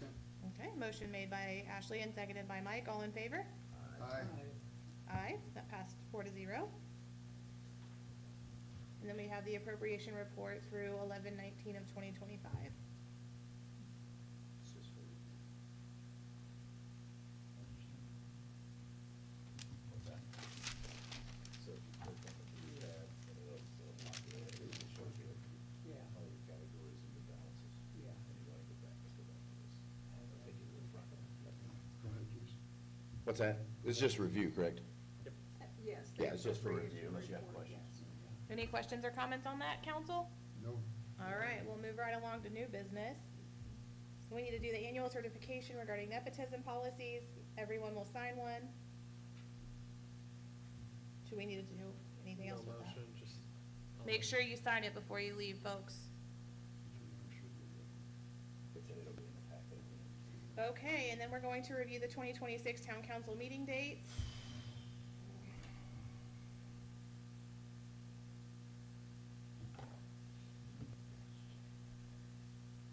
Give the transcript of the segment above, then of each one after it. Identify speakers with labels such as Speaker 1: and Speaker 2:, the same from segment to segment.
Speaker 1: Okay, motion made by Ashley and seconded by Mike. All in favor?
Speaker 2: Aye.
Speaker 1: Aye, that passed four to zero. And then we have the appropriation report through eleven nineteen of twenty twenty-five.
Speaker 3: What's that? So if you click on the rehab, and it'll, it'll pop you up, it'll show you
Speaker 2: Yeah.
Speaker 3: all your categories and your balances.
Speaker 2: Yeah.
Speaker 3: And you wanna go back, let's go back to this. I'll take you to the front.
Speaker 4: What's that? It's just review, correct?
Speaker 2: Yes.
Speaker 4: Yeah, it's just for
Speaker 2: appropriation
Speaker 4: review, unless you have
Speaker 2: report,
Speaker 4: questions.
Speaker 2: yes.
Speaker 1: Any questions or comments on that, council?
Speaker 5: No.
Speaker 1: All right, we'll move right along to new business. We need to do the annual certification regarding nepotism policies. Everyone will sign one. Do we need to do anything else with that?
Speaker 6: just.
Speaker 1: Make sure you sign it before you leave, folks.
Speaker 3: It's, in- it'll be in the packet. at the end.
Speaker 1: Okay, and then we're going to review the 2026 town council meeting dates.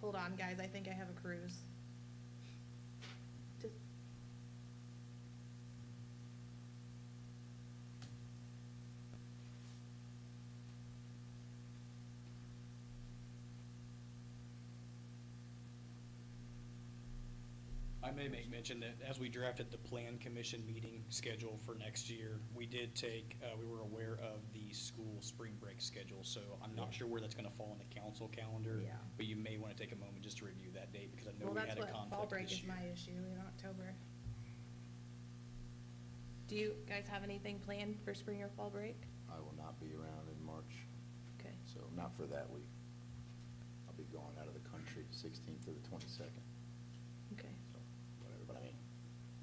Speaker 1: Hold on, guys, I think I have a cruise. Does-
Speaker 7: I may make mention that as we drafted the plan commission meeting schedule for next year, we did take, uh, we were aware of the school spring break schedule, so I'm not sure where that's gonna fall on the council calendar.
Speaker 1: Yeah.
Speaker 7: But you may wanna take a moment just to review that date, because I know
Speaker 1: Well,
Speaker 7: we
Speaker 1: that's
Speaker 7: had a
Speaker 1: what, fall
Speaker 7: conflict
Speaker 1: break
Speaker 7: this
Speaker 1: is
Speaker 7: year.
Speaker 1: my issue in October. Do you guys have anything planned for spring or fall break?
Speaker 4: I will not be around in March,
Speaker 1: Okay.
Speaker 4: so not for that week. I'll be going out of the country 16th to the 22nd,
Speaker 1: Okay.
Speaker 4: so whatever, but I mean,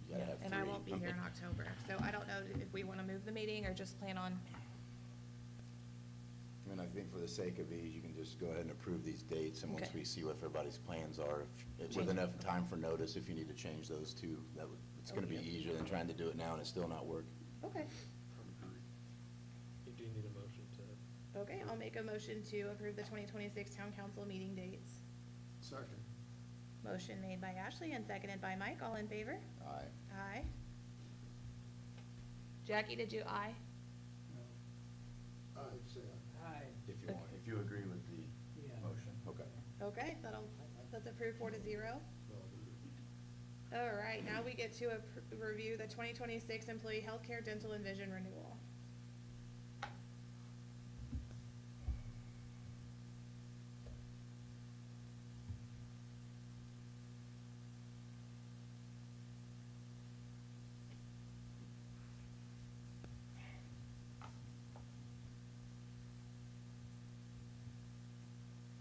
Speaker 4: you gotta have
Speaker 1: And I
Speaker 4: three.
Speaker 1: won't be here in October, so I don't know if we want to move the meeting or just plan on,
Speaker 4: I mean, I think for the sake of these, you can just go ahead and approve these dates, and once
Speaker 1: Okay.
Speaker 4: we see what everybody's plans are, if-
Speaker 1: Change.
Speaker 4: with enough time for notice, if you need to change those two, that would, it's gonna be
Speaker 1: Okay.
Speaker 4: easier than trying to do it now and it still not work.
Speaker 1: okay.
Speaker 6: You do need a motion to.
Speaker 1: Okay, I'll make a motion to approve the 2026 town council meeting dates.
Speaker 5: Second.
Speaker 1: Motion made by Ashley and seconded by Mike. All in favor?
Speaker 4: Aye.
Speaker 1: Aye. Jackie, did you aye?
Speaker 5: I'd say aye.
Speaker 2: Aye.
Speaker 4: If you want, if you agree with
Speaker 2: Yeah.
Speaker 4: the motion. Okay.
Speaker 1: Okay, that'll, that's approved four to zero.
Speaker 5: Well, there-
Speaker 1: All right, now we get to appro- review the 2026 employee healthcare, dental, and vision renewal.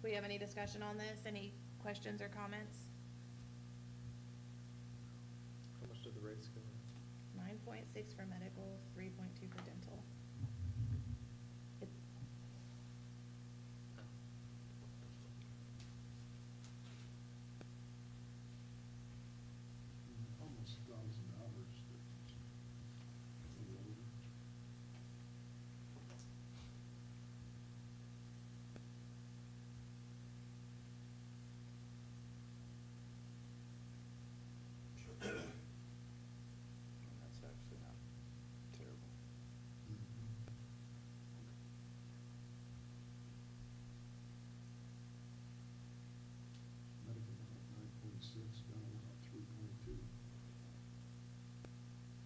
Speaker 1: Do we have any discussion on this? Any questions or comments?
Speaker 6: How much did the rates go up?
Speaker 1: 9.6 for medical, 3.2 for dental. It-
Speaker 5: Almost a thousand hours. that's a little over.
Speaker 4: And That's actually not terrible.
Speaker 5: Medical, nine point six, down about three point two.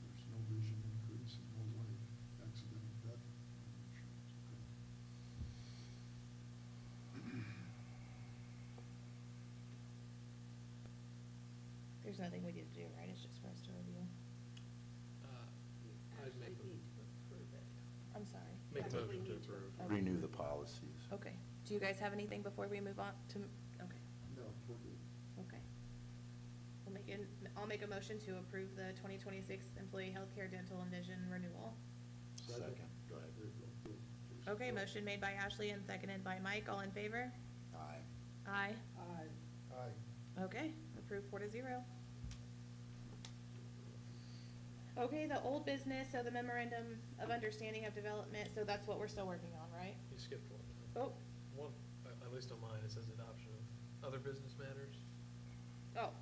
Speaker 5: There's no vision increase and no life accident death. insurance.
Speaker 1: There's nothing we need to do, right? It's just for us to review.
Speaker 6: Uh, I'd
Speaker 2: Actually,
Speaker 6: make,
Speaker 2: we need to approve it.
Speaker 1: I'm sorry.
Speaker 2: I
Speaker 6: make a
Speaker 2: think we
Speaker 6: motion to
Speaker 2: need to
Speaker 6: approve.
Speaker 1: Okay.
Speaker 4: Renew the policies.
Speaker 1: Okay. Do you guys have anything before we move on to, okay,
Speaker 5: No, we're good.
Speaker 1: okay. We'll make, an- I'll make a motion to approve the 2026 employee healthcare, dental, and vision renewal.
Speaker 4: Second. Go ahead.
Speaker 5: There you go. Go, go.
Speaker 1: Okay, motion made by Ashley and seconded by Mike. All in favor?
Speaker 4: Aye.
Speaker 1: Aye.
Speaker 2: Aye.
Speaker 5: Aye.
Speaker 1: Okay, approved four to zero. Okay, the old business, so the memorandum of understanding of development, so that's what we're still working on, right?
Speaker 6: You skipped one.
Speaker 1: Oh,
Speaker 6: One, at at least on mine, it says adoption of other business matters.
Speaker 1: oh,